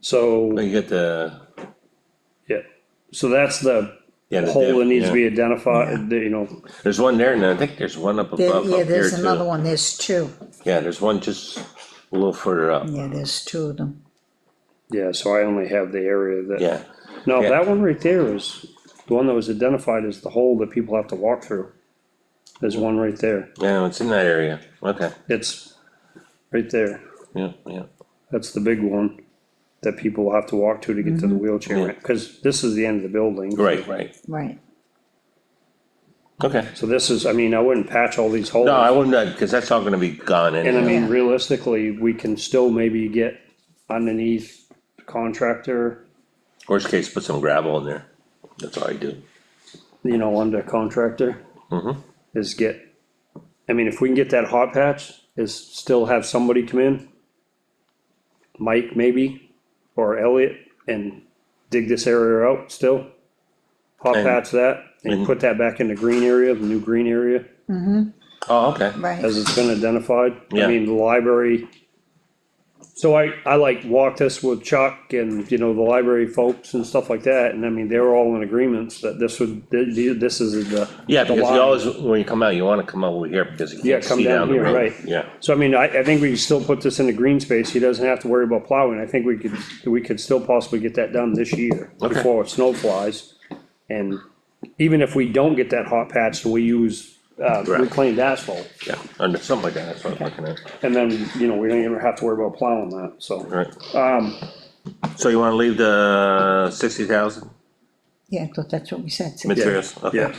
So, You get the, yeah, so that's the yeah, the hole that dip, needs to yeah. be identified, you know, There's one there, and I think there's one up There, above up yeah, here there's another too. one, there's two, Yeah, there's one just a little further up, yeah, there's two of them. yeah, so I only have the area that. yeah. No, Yeah. that one right there is, the one that was identified as the hole that people have to walk through. There's one right there, Yeah, it's in that area, okay, it's right there, yeah, yeah, that's the big one. That people will have to walk to to get to the wheelchair, ramp, cause this is the end of the building. Mm-hmm. right, right, Right, okay. So this is, I mean, I wouldn't patch all these holes. No, I wouldn't, uh, cause that's all gonna be gone And I anyway, mean, Yeah. realistically, we can still maybe get underneath contractor, worst case, put some gravel in there, that's all I do. you know, under contractor. Mm-hmm. Is get, I mean, if we can get that hot patch, is still have somebody come in. Mike maybe, or Elliot, and dig this area out still. Hot And- Mm-hmm. patch that, and and- put that back in the green area, the new green area. Oh, okay, right, as it's been identified. I Yeah. mean, the library. So I, I like walked this with Chuck and, you know, the library folks and stuff like that, and I mean, they were all in agreements that this would, th- th- this is the. yeah, the because line. you always, when you come out, you wanna come over here, because you Yeah, can't come see down down the here, road. right. Yeah, So I mean, I, I think we can still put this in the green space, he doesn't have to worry about plowing, I think we could, we could still possibly get that done this year, Okay. before snow flies. And even if we don't get that hot patch, we use, uh, Right. reclaimed asphalt, yeah, under, something like that, that's what I'm looking at, and then, you know, we don't even have to worry about plowing that, so. right? Um. So you wanna leave the sixty thousand yeah, I thought that's what we said, so- materials? Okay. Yeah.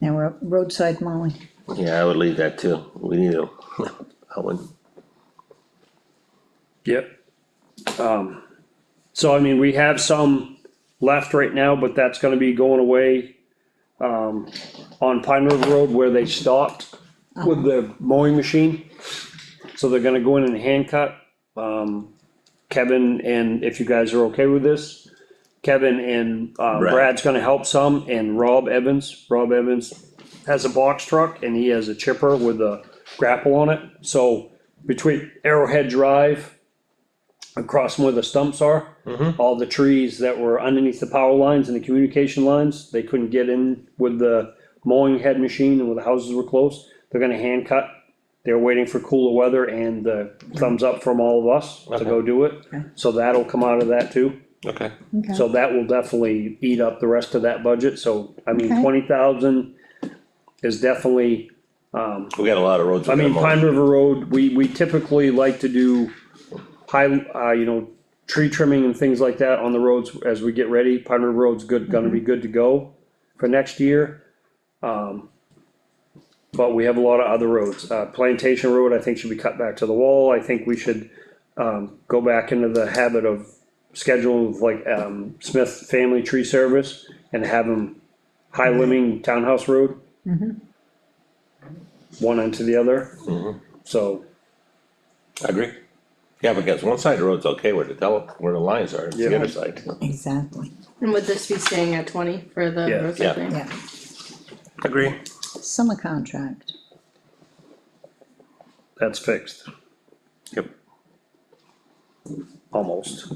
now we're roadside mowing, Yeah, I would leave that too, we need to, I wouldn't, Yep. Um, so I mean, we have some left right now, but that's gonna be going away. Um, on Pine River Road where they stopped with the mowing machine. So they're gonna go in and hand cut. Um, Kevin and if you guys are okay with this, Kevin and uh, Brad. Brad's gonna help some and Rob Evans, Rob Evans has a box truck and he has a chipper with a grapple on it. So between Arrowhead Drive across from where the stumps are, all the trees that were underneath the power lines and the communication lines, they couldn't get in with the mowing head machine and where the houses were close. They're gonna hand cut. They're waiting for cooler weather and the thumbs up from all of us to go do it. So that'll come out of that too. okay. okay, So that will definitely eat up the rest of that budget. So, I mean, Okay. twenty thousand is definitely We got a lot of roads. we I mean, gotta mow. Pine River Road, we, we typically like to do high, uh, you know, tree trimming and things like that on the roads as we get ready. Pine River Road's good, gonna be good to go for next year. Um, but we have a lot of other roads. Uh, Plantation Road, I think should be cut back to the wall. I think we should, um, go back into the habit of scheduling like, um, Smith Family Tree Service and have them high limbing Townhouse Road one into the other. So, I agree. Yeah, because one side of the road's okay where the tele, where the lines are, it's the Yeah. other side. exactly, And would this be staying at twenty for the Yeah. Yeah. roadside thing? yeah, Agree. summer contract, that's fixed, Yep. almost.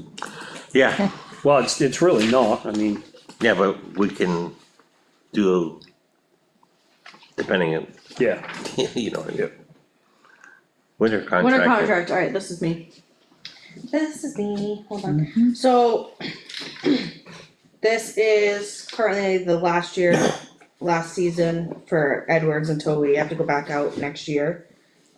Yeah, Well, it's, it's really not, I mean, yeah, but we can do, depending on, yeah, you know, yeah. Winter Winter contractor. contract, alright, this is me. This is me, hold on, so. This is currently the last year, last season for Edwards until we have to go back out next year.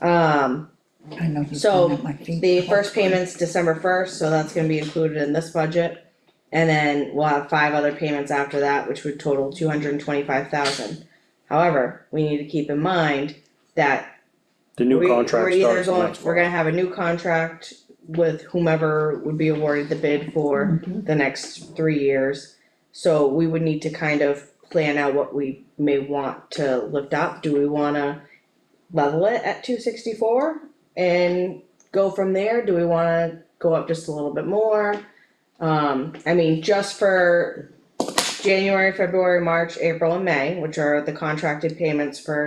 Um, I know he's So, going up my feet. the first payment's December first, so that's gonna be included in this budget. And then we'll have five other payments after that, which would total two hundred and twenty-five thousand. However, we need to keep in mind that the new we- contract we're either starts going, next we're month. gonna have a new contract with whomever would be awarded the bid for the next three years. So we would need to kind of plan out what we may want to lift up, do we wanna level it at two sixty-four? And go from there, do we wanna go up just a little bit more? Um, I mean, just for January, February, March, April and May, which are the contracted payments for